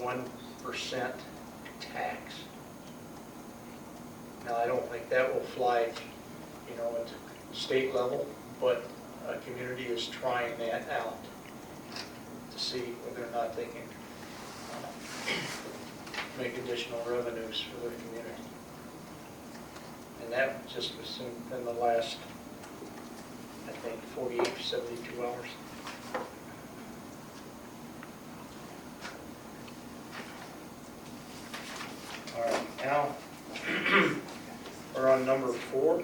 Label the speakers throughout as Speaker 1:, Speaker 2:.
Speaker 1: one percent tax. Now, I don't think that will fly, you know, at the state level, but a community is trying that out to see whether or not they can uh, make additional revenues for their community. And that just was in- in the last, I think, 48, or 72 hours. All right, now, we're on number four.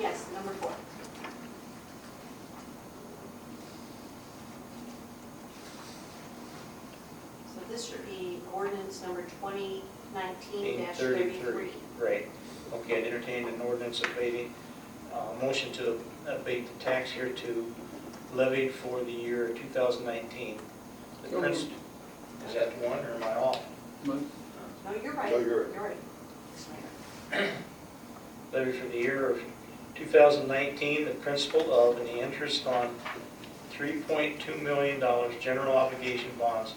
Speaker 2: Yes, number four. So this should be ordinance number 2019-33.
Speaker 1: Right. Okay, I'd entertain an ordinance abating, uh, motion to abate the tax here to levied for the year 2019. The
Speaker 3: So
Speaker 1: prince- Is that one or am I off?
Speaker 2: No, you're right.
Speaker 4: No, you're right.
Speaker 2: You're right.
Speaker 1: Levy for the year of 2019, the principal of and the interest on $3.2 million general obligation bonds,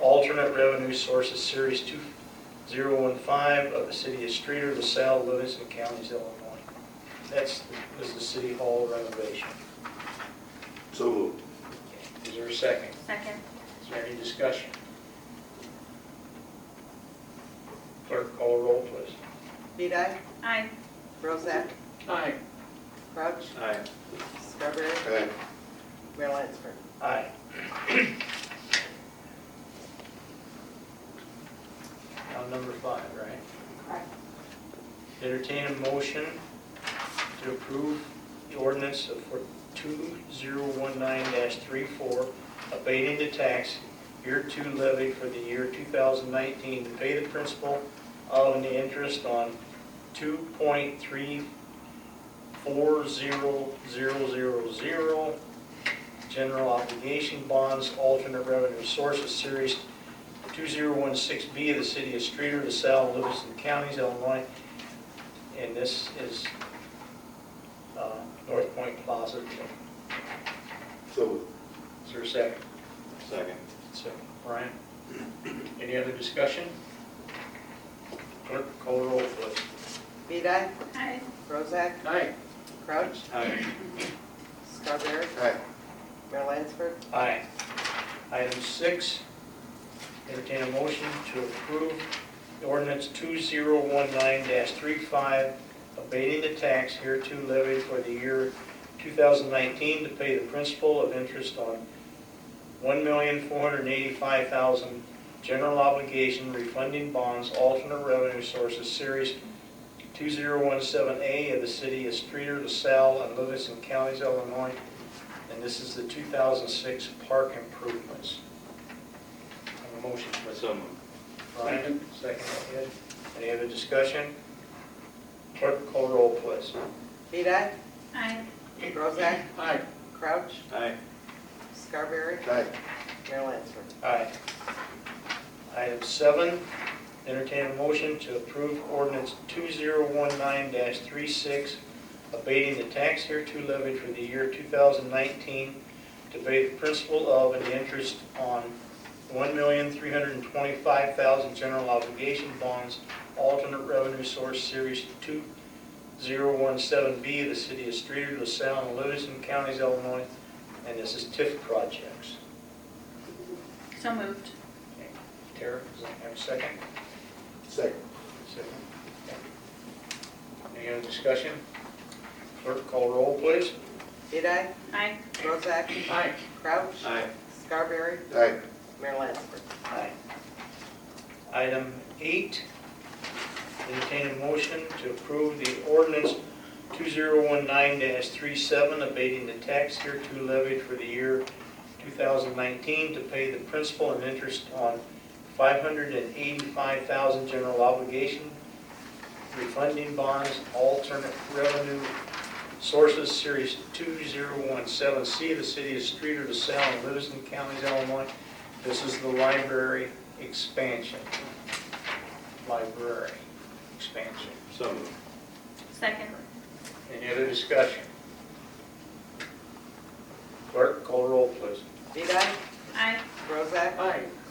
Speaker 1: alternate revenue sources, Series 2015 of the city of Streeter, LaSalle, Livingston Counties, Illinois. That's, was the city hall renovation.
Speaker 4: So moved.
Speaker 1: Is there a second?
Speaker 5: Second.
Speaker 1: Is there any discussion? Clerk, call roll, please.
Speaker 6: Vidae,
Speaker 5: Aye.
Speaker 6: Bozak,
Speaker 3: Aye.
Speaker 6: Crouch,
Speaker 4: Aye.
Speaker 6: Scarborough,
Speaker 4: Aye.
Speaker 6: Mayor Lansford.
Speaker 1: Aye. On number five, right?
Speaker 2: Correct.
Speaker 1: Entertain a motion to approve the ordinance of- for 2019-34, abating the tax year two levy for the year 2019 to pay the principal of and the interest on 2.340000 general obligation bonds, alternate revenue sources, Series 2016B of the City of Streeter, LaSalle, and Livingston Counties, Illinois, and this is uh, North Point Plaza.
Speaker 4: So moved.
Speaker 1: Is there a second?
Speaker 4: Second.
Speaker 1: Second. Brian? Any other discussion? Clerk, call roll, please.
Speaker 6: Vidae,
Speaker 5: Aye.
Speaker 6: Bozak,
Speaker 3: Aye.
Speaker 6: Crouch,
Speaker 4: Aye.
Speaker 6: Scarborough,
Speaker 4: Aye.
Speaker 6: Mayor Lansford.
Speaker 1: Aye. Item six, entertain a motion to approve ordinance 2019-35, abating the tax hereto levied for the year 2019 to pay the principal of interest on $1,485,000 general obligation refunding bonds, alternate revenue sources, Series 2017A of the city of Streeter, LaSalle, and Livingston Counties, Illinois, and this is the 2006 park improvements. Have a motion, please.
Speaker 4: So moved.
Speaker 1: Brian, second, Ed. Any other discussion? Clerk, call roll, please.
Speaker 6: Vidae,
Speaker 5: Aye.
Speaker 6: Bozak,
Speaker 3: Aye.
Speaker 6: Crouch,
Speaker 4: Aye.
Speaker 6: Scarborough,
Speaker 4: Aye.
Speaker 6: Mayor Lansford.
Speaker 1: Aye. Item seven, entertain a motion to approve ordinance 2019-36, abating the tax hereto levied for the year 2019 to pay the principal of and the interest on $1,325,000 general obligation bonds, alternate revenue source series 2017B of the city of Streeter, LaSalle, and Livingston Counties, Illinois, and this is TIF projects.
Speaker 5: So moved.
Speaker 1: Tara, does that have a second?
Speaker 4: Second.
Speaker 1: Second. Any other discussion? Clerk, call roll, please.
Speaker 6: Vidae,
Speaker 5: Aye.
Speaker 6: Bozak,
Speaker 3: Aye.
Speaker 6: Crouch,
Speaker 4: Aye.
Speaker 6: Scarborough,
Speaker 4: Aye.
Speaker 6: Mayor Lansford.
Speaker 1: Aye. Item eight, entertain a motion to approve the ordinance 2019-37, abating the tax hereto levied for the year 2019 to pay the principal and interest on 585,000 general obligation refunding bonds, alternate revenue sources, Series 2017C, the city of Streeter, LaSalle, and Livingston Counties, Illinois, this is the library expansion. Library expansion.
Speaker 4: So moved.
Speaker 5: Second.
Speaker 1: Any other discussion? Clerk, call roll, please.
Speaker 6: Vidae,
Speaker 5: Aye.
Speaker 6: Bozak,
Speaker 3: Aye.